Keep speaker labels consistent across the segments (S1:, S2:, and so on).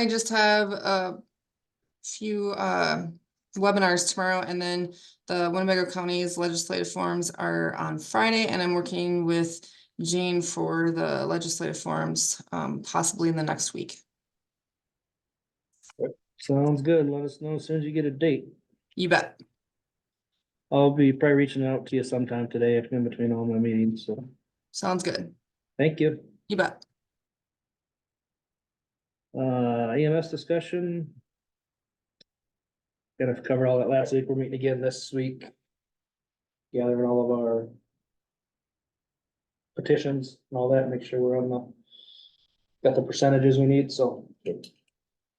S1: I just have a few um, webinars tomorrow and then the Winnebago County's legislative forums are on Friday and I'm working with Jane for the legislative forums, um, possibly in the next week.
S2: Sounds good. Let us know as soon as you get a date.
S1: You bet.
S2: I'll be probably reaching out to you sometime today, if in between all my meetings, so,
S1: Sounds good.
S2: thank you.
S1: You bet.
S2: Uh, EMS discussion. Gonna cover all that last week. We're meeting again this week. Gathering all of our. Petitions and all that, make sure we're on the. Got the percentages we need, so.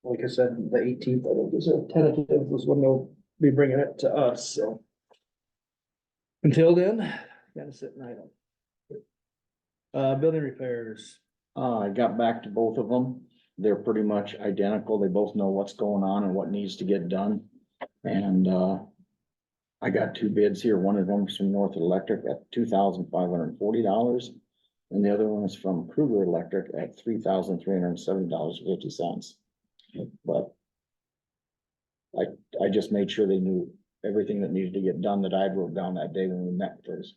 S2: Like I said, the eighteenth, I think is a tentative, was when they'll be bringing it to us, so. Until then, gotta sit and idle. Uh, building repairs.
S3: Uh, I got back to both of them. They're pretty much identical. They both know what's going on and what needs to get done. And, uh, I got two bids here. One of them's from North Electric at two thousand five hundred and forty dollars. And the other one is from Kruger Electric at three thousand three hundred and seventy dollars fifty cents. But I, I just made sure they knew everything that needed to get done that I wrote down that day when we met first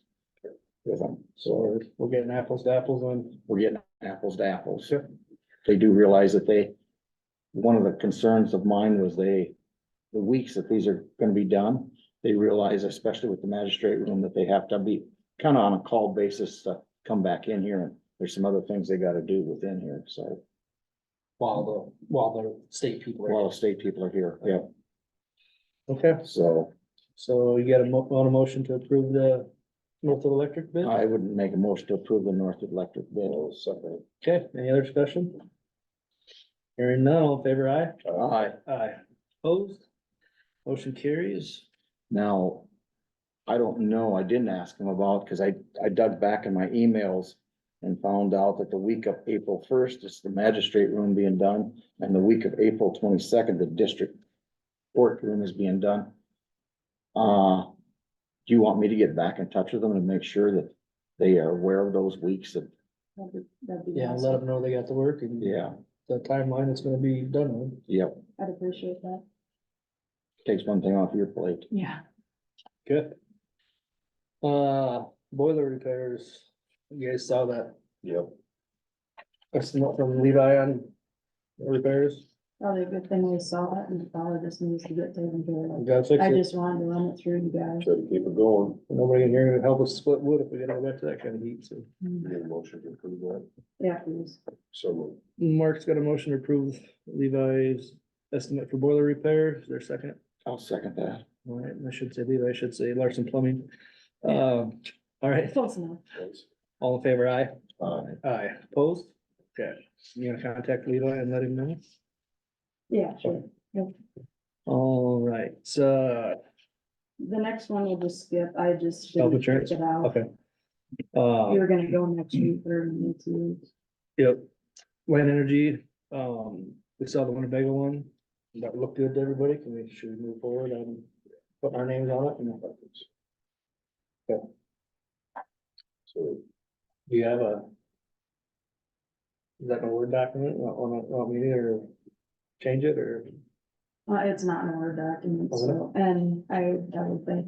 S3: with them.
S2: So
S3: So
S2: we're- we're getting apples to apples on,
S3: we're getting apples to apples. They do realize that they, one of the concerns of mine was they, the weeks that these are gonna be done, they realize, especially with the magistrate room, that they have to be kind of on a call basis to come back in here, and there's some other things they gotta do within here, so,
S2: while the, while the state people are.
S3: while the state people are here, yeah,
S2: Okay,
S3: so
S2: so you got a mo- on a motion to approve the Northwood Electric bid?
S3: I would make a motion to approve the North Electric bill, so.
S2: Okay, any other discussion? Hearing none, all in favor aye?
S3: Aye.
S2: Aye. Opposed? Motion carries.
S3: Now, I don't know, I didn't ask him about, cause I, I dug back in my emails and found out that the week of April first is the magistrate room being done, and the week of April twenty-second, the district court room is being done. Uh, do you want me to get back in touch with them and make sure that they are aware of those weeks that,
S2: Yeah, let them know they got the work and
S3: yeah,
S2: the timeline it's gonna be done on.
S3: yep,
S4: I'd appreciate that.
S3: takes one thing off your plate.
S4: Yeah.
S2: Good. Uh, boiler repairs, you guys saw that,
S3: Yep.
S2: that's not from Levi on repairs,
S4: Probably a good thing we saw it and probably just needs to get taken care
S2: you gotta fix
S4: of. I
S2: it.
S4: just wanted to run it through you guys.
S3: Try to keep it going,
S2: Nobody in here to help us split wood if we get all back to that kind of heat, so.
S3: get a motion to approve that,
S4: Yeah, please.
S3: so.
S2: Mark's got a motion to approve Levi's estimate for boiler repair, is there a second?
S3: I'll second that.
S2: All right, I should say Levi, I should say Larson Plumbing. Um, all right,
S4: Close enough.
S2: all in favor, aye?
S3: Aye.
S2: Aye. Opposed? Okay, you gonna contact Levi and let him know?
S4: Yeah, sure.
S2: All right, so,
S4: The next one you'll just skip. I just.
S2: Health
S4: didn't check
S2: insurance?
S4: It out.
S2: okay. Uh,
S4: You were gonna go next week or next week.
S2: yep, Land Energy, um, we saw the Winnebago one. That looked good to everybody, can we, should we move forward and put our names on it? Okay. So, do you have a? Is that a Word document, want, want, want me to change it, or?
S4: Uh, it's not in our document,
S2: Oh,
S4: so, and I, I would think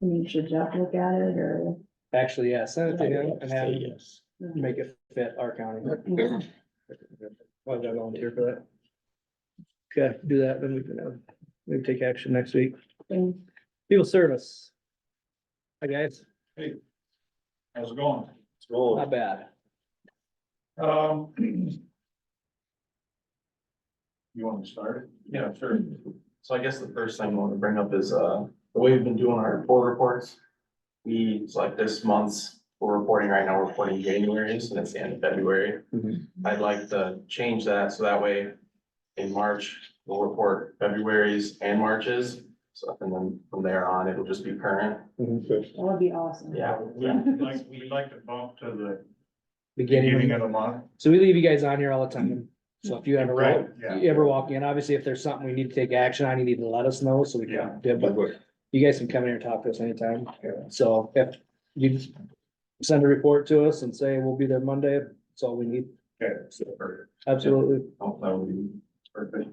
S4: you should just look at it or.
S2: Actually, yeah, send it to him and have him
S3: yes.
S2: make it fit our county.
S4: Yeah.
S2: Why did I volunteer for that? Okay, do that, then we can, uh, maybe take action next week.
S4: And
S2: Field service. Hi, guys.
S5: How's it going?
S2: Not bad.
S5: Um. You want me to start? it? Yeah, sure. So I guess the first thing I want to bring up is, uh, the way we've been doing our poll reports. We, it's like this month's, we're reporting right now, we're reporting January's and it's the end of February.
S3: Mhm.
S5: I'd like to change that, so that way in March, we'll report February's and March's. So, and then from there on, it'll just be current.
S4: that would be awesome.
S5: Yeah.
S6: We'd like, we'd like to bump to the beginning
S2: Beginning,
S6: of the month.
S2: so we leave you guys on here all the time, so if you ever,
S6: Right,
S2: walk-
S6: yeah.
S2: you ever walk in, obviously if there's something we need to take action on, you need to let us know, so we
S6: Yeah.
S2: can, do it, but you guys can come in here and talk to us anytime, so if you just send a report to us and say we'll be there Monday, that's all we need,
S6: Okay, so, or-
S2: absolutely.
S5: Oh, that would be Perfect.